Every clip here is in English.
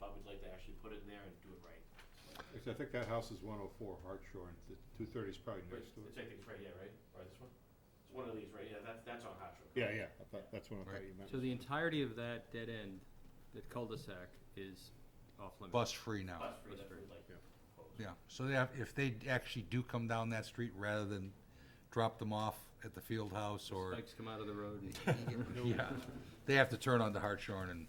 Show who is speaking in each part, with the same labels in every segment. Speaker 1: but we'd like to actually put it in there and do it right.
Speaker 2: Actually, I think that house is one oh four Hartshorn, the two thirty is probably
Speaker 1: Wait,
Speaker 2: next to
Speaker 1: it's
Speaker 2: it.
Speaker 1: I think it's right here, right? Or this one? It's one of these, right? Yeah, that's, that's on Hot Shore.
Speaker 2: Yeah, yeah, I thought, that's what I thought
Speaker 3: Right.
Speaker 2: you meant.
Speaker 4: So the entirety of that dead end, that cul-de-sac is off limits.
Speaker 3: Bus free now.
Speaker 1: Plus free, that's what we'd like.
Speaker 2: Yeah.
Speaker 1: proposed.
Speaker 3: Yeah, so they have, if they actually do come down that street rather than drop them off at the field house or,
Speaker 4: Spikes come out of the road and
Speaker 3: yeah, they have to turn onto Hartshorn and,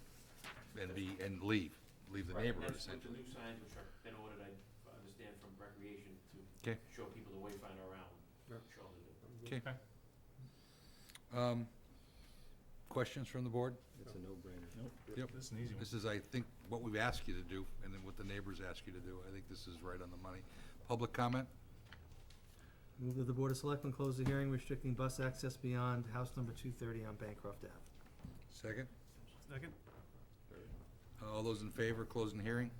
Speaker 3: and be, and leave, leave the
Speaker 1: Right,
Speaker 3: neighborhood
Speaker 1: That's with the new
Speaker 3: essentially.
Speaker 1: signs, which are been ordered, I understand, from recreation to
Speaker 3: 'Kay.
Speaker 1: show people the wayfinder around.
Speaker 2: Yeah.
Speaker 1: Show them the-
Speaker 3: Okay. Um, questions from the board?
Speaker 4: it's a no-brainer.
Speaker 3: Yep.
Speaker 5: This is an easy one.
Speaker 3: This is, I think, what we've asked you to do, and then what the neighbors ask you to do. I think this is right on the money. Public comment?
Speaker 6: Move that the Board of Selectmen close the hearing restricting bus access beyond house number two thirty on Bancroft Ave.
Speaker 3: Second?
Speaker 5: Second?
Speaker 3: All those in favor, closing the hearing?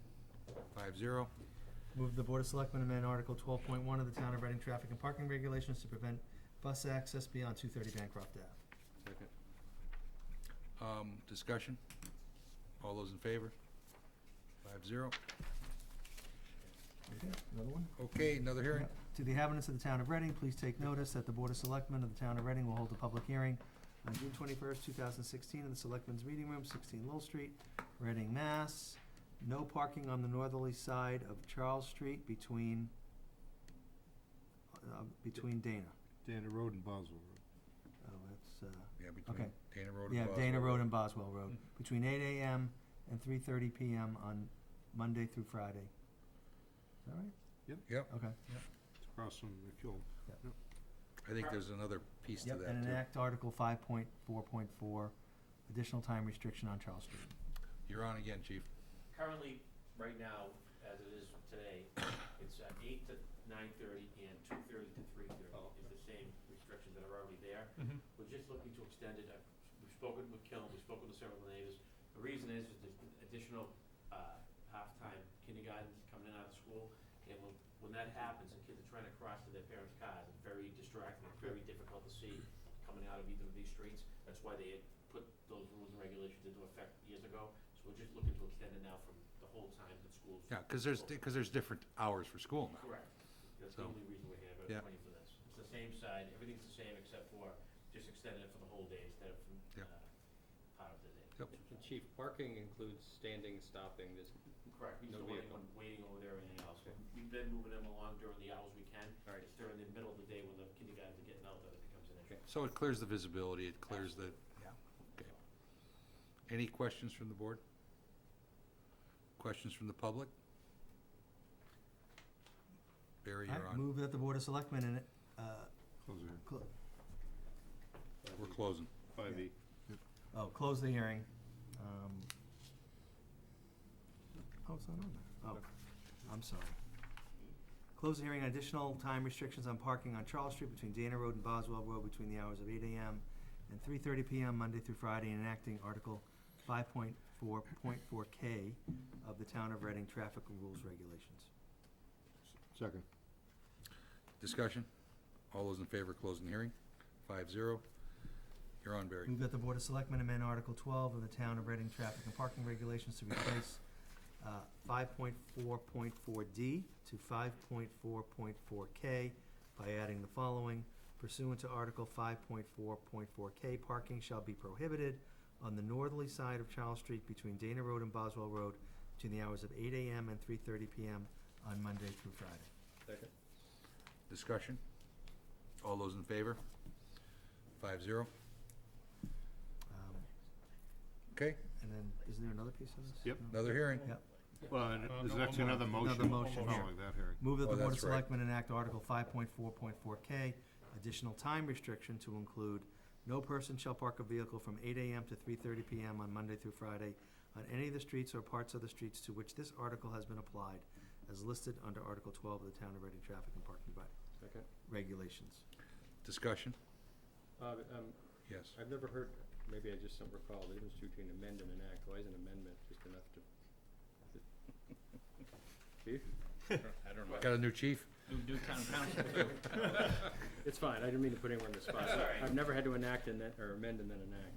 Speaker 3: Five zero.
Speaker 6: Move the Board of Selectmen amend Article twelve point one of the Town of Reading Traffic and Parking Regulations to prevent bus access beyond two thirty Bancroft Ave.
Speaker 4: Second.
Speaker 3: Um, discussion? All those in favor? Five zero.
Speaker 6: Okay, another one?
Speaker 3: Okay, another hearing.
Speaker 6: To the inhabitants of the Town of Reading, please take notice that the Board of Selectmen of the Town of Reading will hold a public hearing on June twenty-first, two thousand sixteen, in the Selectmen's Meeting Room, sixteen Lowell Street, Reading, Mass. No parking on the northerly side of Charles Street between, uh, between Dana.
Speaker 2: Dana Road and Boswell Road.
Speaker 6: Oh, that's, uh,
Speaker 3: Yeah, between
Speaker 6: Okay.
Speaker 3: Dana Road and
Speaker 6: yeah,
Speaker 3: Boswell.
Speaker 6: Dana Road and Boswell Road, between eight AM and three thirty PM on Monday through Friday. Is that right?
Speaker 3: Yep,
Speaker 6: Okay.
Speaker 2: It's across from the Kiln.
Speaker 3: I think there's another piece to
Speaker 6: Yep,
Speaker 3: that
Speaker 6: and
Speaker 3: too.
Speaker 6: enact Article five point four point four, additional time restriction on Charles Street.
Speaker 3: You're on again, chief.
Speaker 1: Currently, right now, as it is today, it's uh, eight to nine thirty and two thirty to three thirty. It's the same restrictions that are already there.
Speaker 5: Mhm.
Speaker 1: We're just looking to extend it. I've- We've spoken with Killen, we've spoken to several neighbors. The reason is, is there's additional, uh, half-time kindergartens coming in out of school. And when, when that happens, the kids are trying to cross to their parents' cars. It's very distracting, it's very difficult to see coming out of either of these streets. That's why they had put those rules and regulations into effect years ago. So we're just looking to extend it now from the whole time that schools.
Speaker 3: Yeah, cause there's, di- cause there's different hours for school now.
Speaker 1: Correct. That's
Speaker 3: So-
Speaker 1: the only reason we're here, but
Speaker 3: Yeah.
Speaker 1: it's for this. It's the same side, everything's the same except for just extending it for the whole day instead of from,
Speaker 3: Yeah.
Speaker 1: uh, part of the day.
Speaker 3: Yep.
Speaker 4: And Chief, parking includes standing, stopping, this,
Speaker 1: Correct. We just
Speaker 4: No
Speaker 1: don't want
Speaker 4: vehicle.
Speaker 1: anyone waiting over there or anything else.
Speaker 4: Okay.
Speaker 1: We've been moving them along during the hours we can.
Speaker 4: All right.
Speaker 1: It's during the middle of the day when the kindergartens are getting out that it becomes an issue.
Speaker 3: So it clears the visibility, it clears the, yeah, okay. Any questions from the board? Questions from the public? Barry, you're
Speaker 6: Alright,
Speaker 3: on.
Speaker 6: Move that the Board of Selectmen and, uh,
Speaker 2: Close the hearing.
Speaker 6: clo-
Speaker 3: We're closing.
Speaker 2: Five E.
Speaker 6: oh, close the hearing, um. Oh, it's not on there. Oh, I'm sorry. Close the hearing on additional time restrictions on parking on Charles Street between Dana Road and Boswell Road between the hours of eight AM and three thirty PM Monday through Friday and enacting Article five point four point four K of the Town of Reading Traffic Rules Regulations.
Speaker 2: Second.
Speaker 3: Discussion? All those in favor, closing the hearing? Five zero. You're on, Barry.
Speaker 6: Move that the Board of Selectmen amend Article twelve of the Town of Reading Traffic and Parking Regulations to replace uh, five point four point four D to five point four point four K by adding the following. Pursuant to Article five point four point four K, parking shall be prohibited on the northerly side of Charles Street between Dana Road and Boswell Road between the hours of eight AM and three thirty PM on Monday through Friday.
Speaker 4: second,
Speaker 3: Discussion? All those in favor? Five zero.
Speaker 6: Um,
Speaker 3: Okay,
Speaker 6: And then, isn't there another piece of this?
Speaker 2: Yep.
Speaker 6: No?
Speaker 3: another hearing.
Speaker 6: Yep.
Speaker 2: Well, and
Speaker 5: Uh,
Speaker 2: there's
Speaker 5: no,
Speaker 2: actually
Speaker 5: one more.
Speaker 2: another motion.
Speaker 6: Another motion here.
Speaker 2: Following that hearing.
Speaker 6: Move that
Speaker 3: Oh,
Speaker 6: the Board of
Speaker 3: that's right.
Speaker 6: Selectmen enact Article five point four point four K, additional time restriction to include no person shall park a vehicle from eight AM to three thirty PM on Monday through Friday on any of the streets or parts of the streets to which this article has been applied, as listed under Article twelve of the Town of Reading Traffic and Parking Reg-
Speaker 4: second.
Speaker 6: Regulations.
Speaker 3: Discussion?
Speaker 4: Uh, but, um,
Speaker 3: Yes.
Speaker 4: I've never heard, maybe I just don't recall, the difference between amend and enact, why is an amendment just enough to? Chief?
Speaker 3: Got a new chief?
Speaker 4: It's fine, I didn't mean to put anyone on the spot.
Speaker 1: That's all right.
Speaker 4: I've never had to enact and then, or amend and then enact.
Speaker 1: Oh,